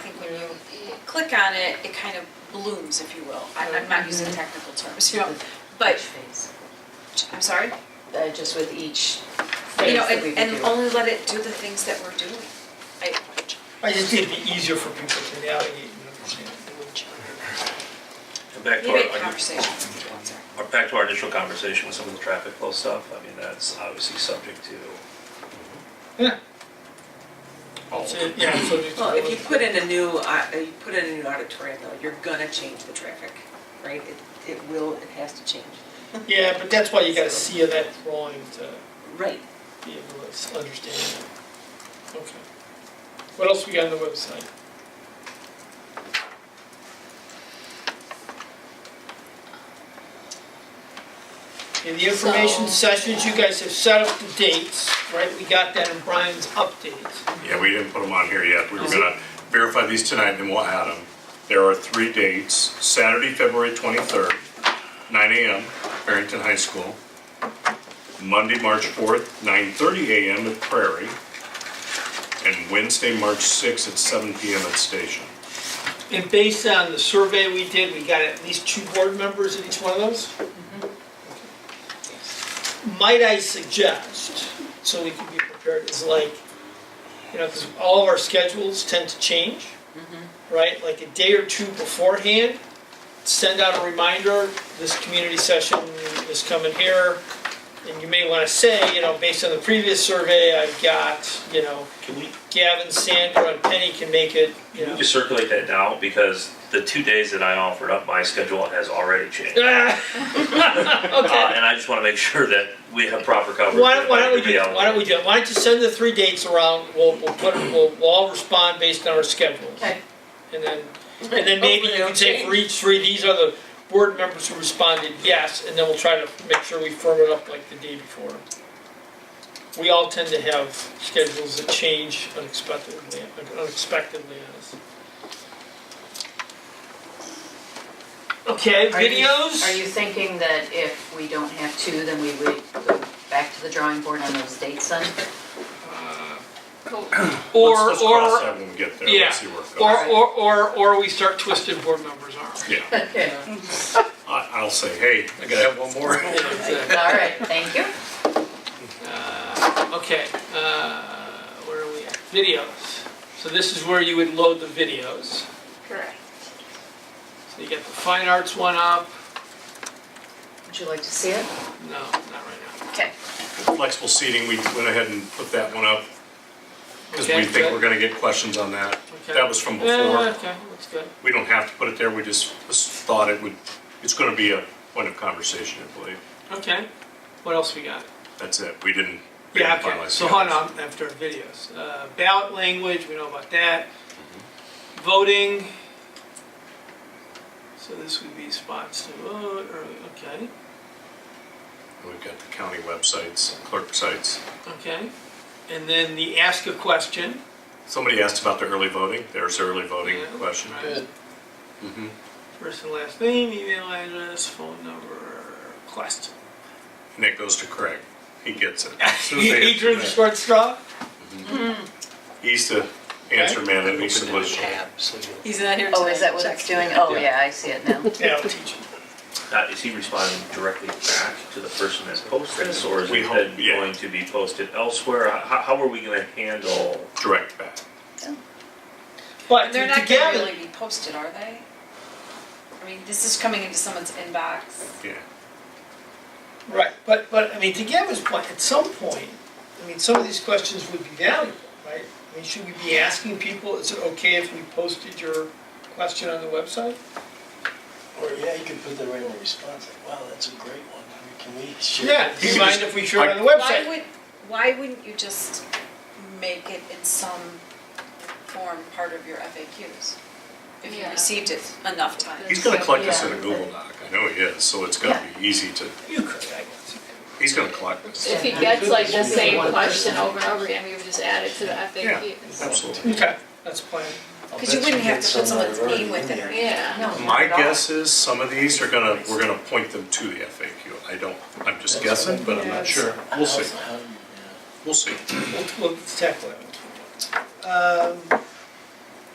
click on it, it kind of blooms, if you will. I- I'm not using technical terms, you know, but, I'm sorry. Uh, just with each You phase know, that we and, would and do. only let it do the things that we're doing. I, I just need to be easier for people to navigate and understand. And Back we to our, made I guess- conversation, I'm sorry. or back to our initial conversation with some of the traffic flow stuff, I mean, that's obviously subject to, Yeah, all so, yeah, so it's. Well, Oh, if you put in a new, uh, you put in a new auditorium though, you're gonna change the traffic, right? It, it will, it has to change. Yeah, but that's why you gotta see that drawing to Right. be able to s- understand it. Okay. What else we got on the website? In the information So- sessions, you guys have set up the dates, right? We got that in Brian's update. Yeah, we didn't put them on here yet. We were gonna verify these tonight, then we'll add them. There are three dates, Saturday, February 23rd, 9 AM, Barrington High School. Monday, March 4th, 9:30 AM at Prairie. And Wednesday, March 6th at 7 PM at Station. And based on the survey we did, we got at least two board members in each one of those? Might I suggest, so we can be prepared, is like, you know, because all of our schedules tend to change, right? Like a day or two beforehand, send out a reminder, this community session is coming here. And you may want to say, you know, based on the previous survey, I've got, you know, can we, Gavin, Sandra, and Penny can make it, you can know. we just circulate that now, because the two days that I offered up, my schedule has already changed. Uh, Ah, okay. and I just wanna make sure that we have proper coverage. Why don't, why don't we Everybody do, else. why don't we do, it? why don't you send the three dates around, we'll, we'll put, we'll, we'll all respond based on our schedules. Okay. And then, and then maybe you can say for each three, these are the board members who responded yes, and then we'll try to make sure we firm it up like the day before. We all tend to have schedules that change unexpectedly, unexpectedly on us. Okay, Are you- videos? Are you thinking that if we don't have two, then we would go back to the drawing board on those dates then? Or, Let's- Let's or, cross that when we get there, yeah. let's see where it Or, goes. or, or, or we start twisting board members' arms. Yeah, Okay. I, I'll say, hey, I gotta have one more. All right, thank you. Uh, Okay, uh, where are we at? Videos. So this is where you would load the videos. Correct. So you got the fine arts one up. Would you like to see it? No, not right now. Okay. Flexible seating, we went ahead and put that one up because Okay, we think good. we're gonna get questions on that. Okay. That was from Yeah, before. Eh, okay, looks good. We don't have to put it there, we just just thought it would, it's gonna be a point of conversation, I believe. Okay, what else we got? That's it, we didn't. we Yeah, didn't okay, finalize so the hold others. on, after videos. Uh, Ballot language, we know about that. Voting. So this would be spots to vote, or, okay, We've got the county websites, clerk sites. okay. And then the ask a question. Somebody asked about the early voting, there's the early voting Yeah, question. right. Mhm. First and last name, email address, phone number, question. And that goes to Craig, he gets it. As soon as they He drew the answer short straw? that- He's the answer man at East Open the Solution. tab, so you'll. He's not here Oh, is that what it's doing? Oh, yeah, I see it now. Yeah, I'll teach him. Now, is he responding directly back to the person that posted this, or is We it hope- then yeah. going to be posted elsewhere? How, how are we gonna handle? Direct back. But And they're to not gonna Gavin, really be posted, are they? I mean, this is coming into someone's inbox. Yeah. right, but, but, I mean, to Gavin's point, at some point, I mean, some of these questions would be valuable, right? I mean, should we be asking people, is it okay if we posted your question on the website? Or, yeah, you could put that right in the response, like, wow, that's a great one, I mean, can we share? Yeah, this?" do you could mind just- if we share it on the Why website? would, why wouldn't you just make it in some form part of your FAQs? If you Yeah. received it enough times? He's gonna collect this in a Google Doc, I know he is, so it's gonna be easy to, You could, I guess. he's gonna collect this. If he gets like the same question over and over again, we would just add it to the FAQs. Absolutely. Okay, that's a plan. I'll Because you bet wouldn't get have to put some that someone's are already name with in it or there. Yeah. No, not My at all. guess is some of these are gonna, we're gonna point them to the FAQ. I don't, I'm just guessing, but I'm not sure. We'll see, How's- how you- yeah. we'll see. We'll, we'll tackle it. Um,